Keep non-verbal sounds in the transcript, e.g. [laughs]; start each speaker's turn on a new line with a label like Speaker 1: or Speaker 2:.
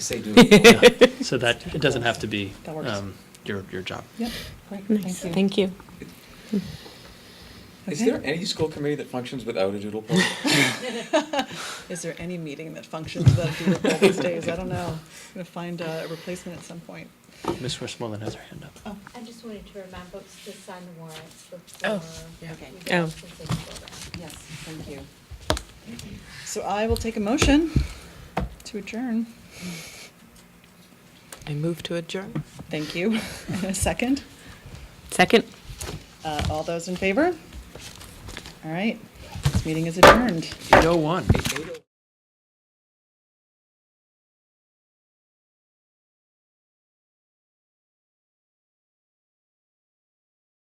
Speaker 1: Say doable.
Speaker 2: So that, it doesn't have to be
Speaker 3: That works.
Speaker 2: um, your, your job.
Speaker 3: Yep, great,
Speaker 4: Nice,
Speaker 3: thank you.
Speaker 4: thank you.
Speaker 1: Is
Speaker 3: Okay.
Speaker 1: there any school committee that functions without a doodle poll?
Speaker 3: Is there any meeting that functions without a doodle poll these days? I don't know. I'm gonna find uh, a replacement at some point.
Speaker 2: Ms. Westmoreland has her hand up.
Speaker 5: I just wanted to remind folks to sign the warrants
Speaker 4: Oh,
Speaker 5: before.
Speaker 3: yeah.
Speaker 5: we
Speaker 4: Okay. Oh.
Speaker 5: go to the program.
Speaker 3: Yes, thank you. So I will take a motion to adjourn.
Speaker 4: I move to adjourn.
Speaker 3: Thank you. [laughs] And a second.
Speaker 4: Second.
Speaker 3: Uh, All those in favor? All right, this meeting is adjourned.
Speaker 2: Eight oh one.